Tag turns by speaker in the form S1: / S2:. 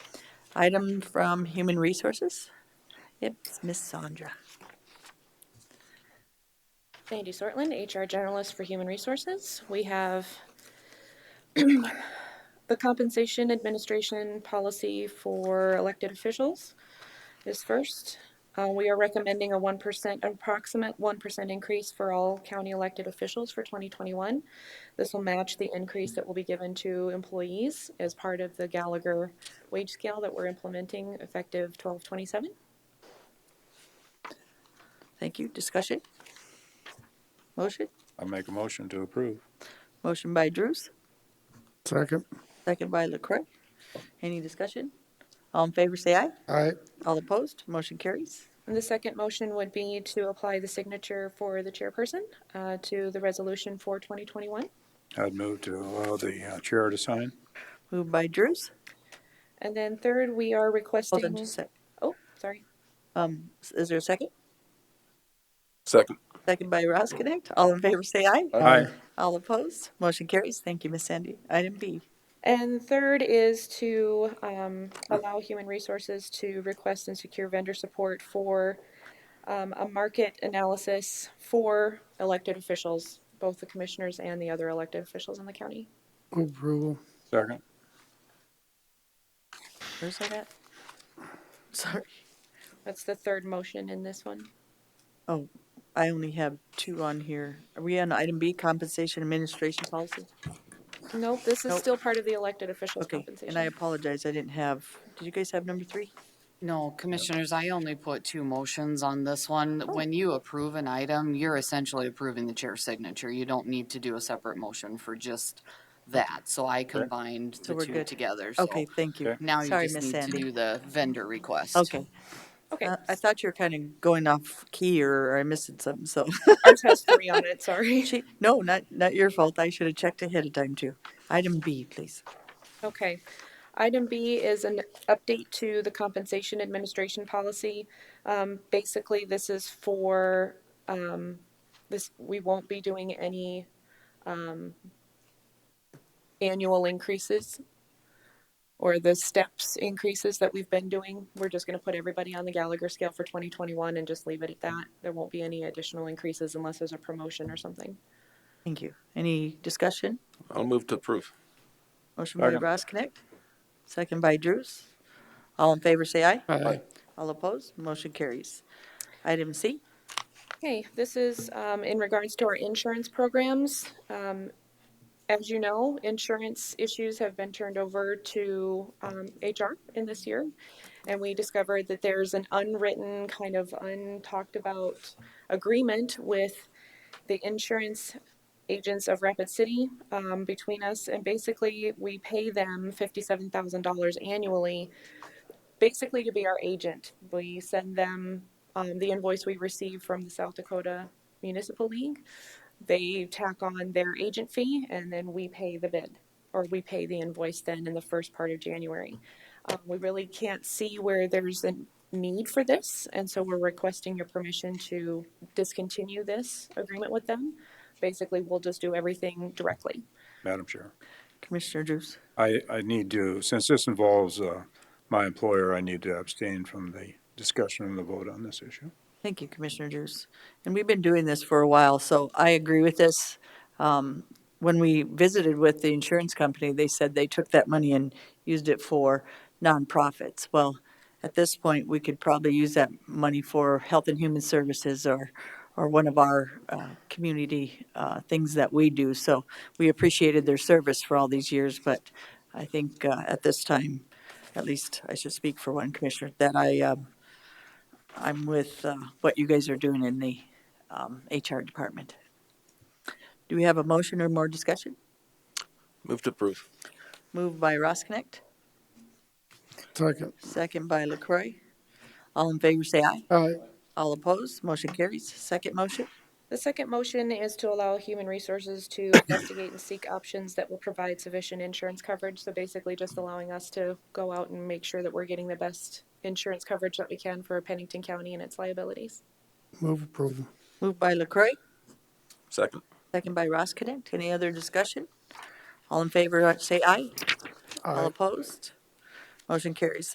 S1: Item from Human Resources? Yep, it's Ms. Sandra.
S2: Sandy Sortland, HR Generalist for Human Resources. We have the compensation administration policy for elected officials is first. Uh, we are recommending a 1%, approximate 1% increase for all county elected officials for 2021. This will match the increase that will be given to employees as part of the Gallagher wage scale that we're implementing effective 1227.
S1: Thank you. Discussion? Motion?
S3: I make a motion to approve.
S1: Motion by Drews,
S4: Second.
S1: second by LaCroy. Any discussion? All in favor, say aye.
S4: Aye.
S1: All opposed, motion carries.
S2: And The second motion would be to apply the signature for the chairperson uh, to the resolution for 2021.
S3: I'd move to allow the uh, chair to sign.
S1: Moved by Drews.
S2: And then third, we are
S1: Hold on
S2: requesting,
S1: just a sec.
S2: oh, sorry.
S1: Um, s- is there a second?
S3: Second.
S1: Second by Ross Connect. All in favor, say aye.
S3: Aye.
S1: All opposed, motion carries. Thank you, Ms. Sandy. Item B.
S2: And third is to um, allow Human Resources to request and secure vendor support for um, a market analysis for elected officials, both the commissioners and the other elected officials in the county.
S4: Move approval.
S3: Second.
S1: Where's that at? Sorry,
S2: That's the third motion in this one.
S1: I only have two on here. Are we on item B, compensation administration policy?
S2: Nope, this is
S1: Nope.
S2: still part of the elected officials
S1: Okay,
S2: compensation.
S1: and I apologize, I didn't have, did you guys have number three?
S5: No, commissioners, I only put two motions on this one.
S1: Oh.
S5: When you approve an item, you're essentially approving the chair's signature. You don't need to do a separate motion for just that. So I combined
S1: So
S5: the
S1: we're
S5: two
S1: good.
S5: together. So
S1: Okay, thank you.
S3: Okay.
S5: Now you
S1: Sorry,
S5: just
S1: Miss
S5: need to
S1: Sandy.
S5: do the vendor request.
S1: Okay,
S2: Okay,
S1: uh, I thought you were kind of going off key or I missed something, so.
S2: ours has three on it, sorry.
S1: She- No, not, not your fault, I should have checked ahead of time too. Item B, please.
S2: Okay. Item B is an update to the compensation administration policy. Um, basically, this is for, um, this, we won't be doing any, um, annual increases or the steps increases that we've been doing. We're just gonna put everybody on the Gallagher scale for twenty twenty-one and just leave it at that. There won't be any additional increases unless there's a promotion or something.
S1: Thank you. Any discussion?
S6: I'll move to approve.
S1: Motion by
S3: Second.
S1: Ross Connect, second by Drews. All in favor, say aye.
S4: Aye.
S1: All opposed, motion carries. Item C,
S2: Okay, this is um, in regards to our insurance programs. Um, As you know, insurance issues have been turned over to um, HR in this year. And we discovered that there's an unwritten, kind of untalked about agreement with the insurance agents of Rapid City um, between us. And basically, we pay them $57,000 annually, basically to be our agent. We send them um, the invoice we receive from the South Dakota Municipal League. They tack on their agent fee and then we pay the bid or we pay the invoice then in the first part of January. Um, we really can't see where there's a need for this. And so we're requesting your permission to discontinue this agreement with them. Basically, we'll just do everything directly.
S3: Madam Chair.
S1: Commissioner Drews.
S3: I, I need to, since this involves uh, my employer, I need to abstain from the discussion and the vote on this issue.
S1: Thank you, Commissioner Drews. And we've been doing this for a while, so I agree with this. Um, When we visited with the insurance company, they said they took that money and used it for nonprofits. Well, at this point, we could probably use that money for Health and Human Services or, or one of our uh, community uh, things that we do. So we appreciated their service for all these years, but I think uh, at this time, at least I should speak for one commissioner, that I, um, I'm with uh, what you guys are doing in the um, HR department. Do we have a motion or more discussion?
S6: Move to approve.
S1: Moved by Ross Connect,
S4: Second.
S1: second by LaCroy. All in favor, say aye.
S4: Aye.
S1: All opposed, motion carries. Second motion,
S2: The second motion is to allow Human Resources to investigate and seek options that will provide sufficient insurance coverage. So basically just allowing us to go out and make sure that we're getting the best insurance coverage that we can for Pennington County and its liabilities.
S4: Move approval.
S1: moved by LaCroy,
S6: Second.
S1: second by Ross Connect. Any other discussion? All in favor, uh, say aye. All
S4: Aye.
S1: opposed, motion carries.